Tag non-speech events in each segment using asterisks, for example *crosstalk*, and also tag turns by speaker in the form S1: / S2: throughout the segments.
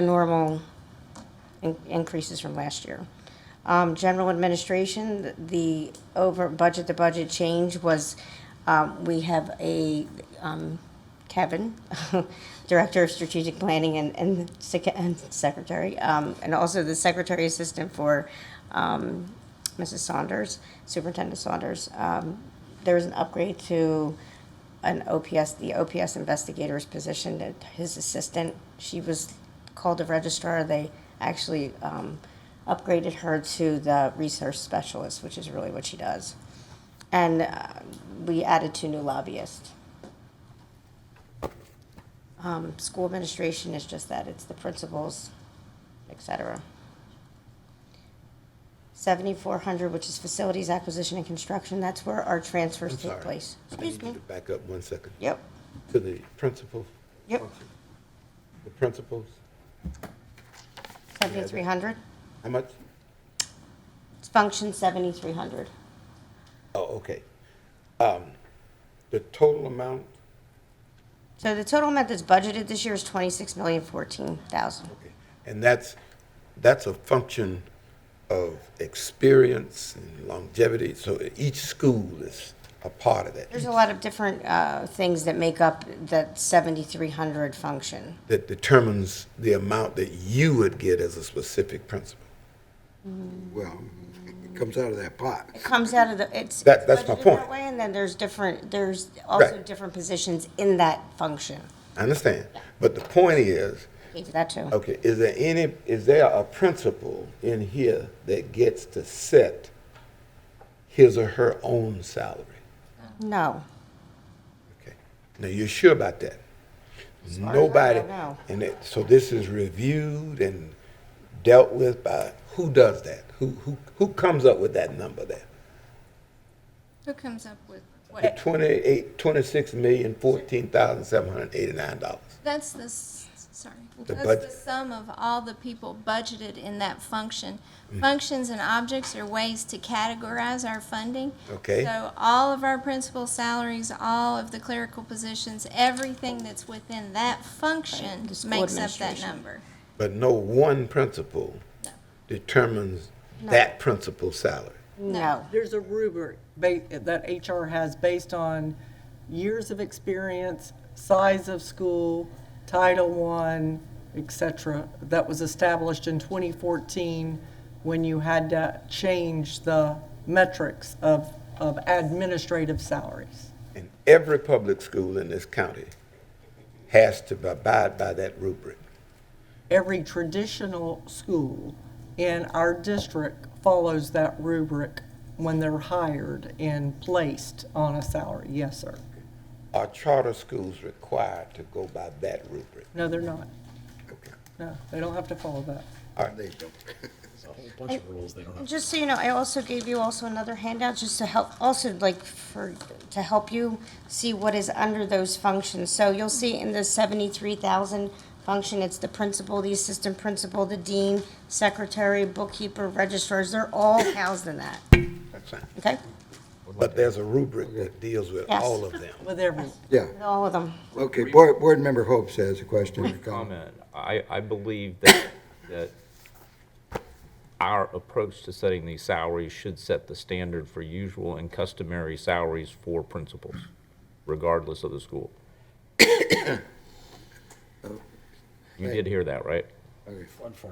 S1: the normal in- increases from last year. Um, General administration, the over budget to budget change was, um, we have a um, Kevin, *laughs* Director of Strategic Planning and- and sec- and Secretary, um, and also the Secretary Assistant for um, Mrs. Saunders, Superintendent Saunders. Um, There was an upgrade to an OPS, the OPS investigator's position, that his assistant, she was called a registrar. They actually um, upgraded her to the research specialist, which is really what she does. And uh, we added two new lobbyists. Um, School administration is just that, it's the principals, et cetera. 7,400, which is facilities acquisition and construction, that's where our transfers
S2: I'm
S1: take
S2: sorry.
S1: place.
S2: I need
S1: Excuse
S2: you
S1: me.
S2: to back up one second
S1: Yep,
S2: to the principal.
S1: Yep.
S2: function. The principals,
S1: 7,300.
S2: how much?
S1: It's function 7,300.
S2: Oh, okay. Um, The total amount,
S1: So the total amount that's budgeted this year is 26,014,000.
S2: okay, and that's, that's a function of experience and longevity, so each school is a part of that,
S1: There's a lot of different uh, things that make up that 7,300 function.
S2: that determines the amount that you would get as a specific principal.
S3: Well, it comes out of that pot.
S1: It comes out of the, it's.
S2: That- that's my
S1: budgeted that
S2: point.
S1: way, And then there's different, there's also
S2: Right.
S1: different positions in that function.
S2: I understand, but the point is,
S1: Gave you that too.
S2: Okay, is there any, is there a principal in here that gets to set his or her own salary?
S1: No.
S2: Okay, now you're sure about that?
S1: as I know,
S2: Nobody,
S1: no.
S2: and it, so this is reviewed and dealt with by, who does that? Who, who, who comes up with that number there?
S4: Who comes up with
S2: The
S4: what?
S2: twenty-eight, twenty-six million, fourteen thousand, seven hundred and eighty-nine dollars.
S4: That's the, s- sorry,
S2: The
S4: that's the
S2: budget.
S4: sum of all the people budgeted in that function.
S2: Mm-hmm.
S4: Functions and objects are ways to categorize our funding.
S2: Okay.
S4: So all of our principal salaries, all of the clerical positions, everything that's within that
S1: Right,
S4: function
S1: the school
S4: makes up that
S1: administration.
S4: number.
S2: But no one principal
S4: No.
S2: determines that principal's salary.
S1: No.
S5: There's a rubric ba- that HR has based on years of experience, size of school, Title I, et cetera, that was established in 2014 when you had to change the metrics of, of administrative salaries.
S2: And every public school in this county has to abide by that rubric.
S5: Every traditional school in our district follows that rubric when they're hired and placed on a salary. Yes, sir.
S2: Are charter schools required to go by that rubric?
S5: No, they're not.
S2: Okay.
S5: No, they don't have to follow that.
S3: They don't.
S6: a whole bunch of rules they don't have.
S1: Just so you know, I also gave you also another handout, just to help, also like for, to help you see what is under those functions. So you'll see in the seventy-three thousand function, it's the principal, the assistant principal, the dean, secretary, bookkeeper, registrars, they're all housed in that,
S2: That's fine.
S1: okay?
S2: But there's a rubric that deals with
S1: Yes.
S2: all of them.
S5: With everyone.
S3: Yeah,
S1: All of them.
S3: okay, Board, Board Member Hope says a question. or comment.
S7: comment. I, I believe that, that our approach to setting these salaries should set the standard for usual and customary salaries for principals, regardless of the school. *coughs* You did hear that, right?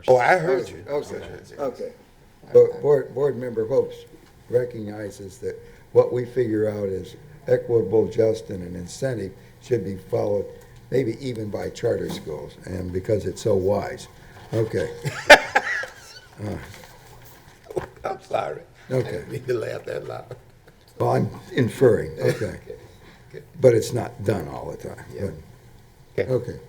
S2: Oh, I heard you.
S3: Okay, okay. Bo- Board, Board Member Hope recognizes that what we figure out is equitable, just, and an incentive should be followed, maybe even by charter schools, and because it's so wise. Okay,
S2: *laughs* I'm sorry. I
S3: okay.
S2: didn't *laughs* mean to laugh that loud.
S3: Well, I'm inferring, okay. But it's not done all the time. but-
S2: Okay.
S3: Okay,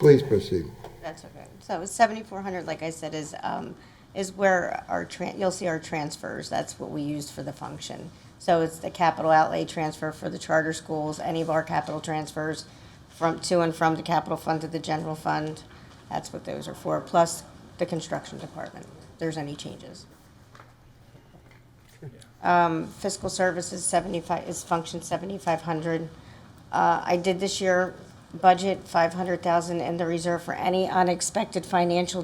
S3: please proceed.
S1: That's okay. So seventy-four hundred, like I said, is, um, is where our tran, you'll see our transfers, that's what we used for the function. So it's the capital outlay transfer for the charter schools, any of our capital transfers from, to and from the capital fund to the general fund. That's what those are for, plus the construction department, if there's any changes. Um, fiscal services seventy-five, is function seventy-five hundred. Uh, I did this year budget, 500,000 in the reserve for any unexpected financial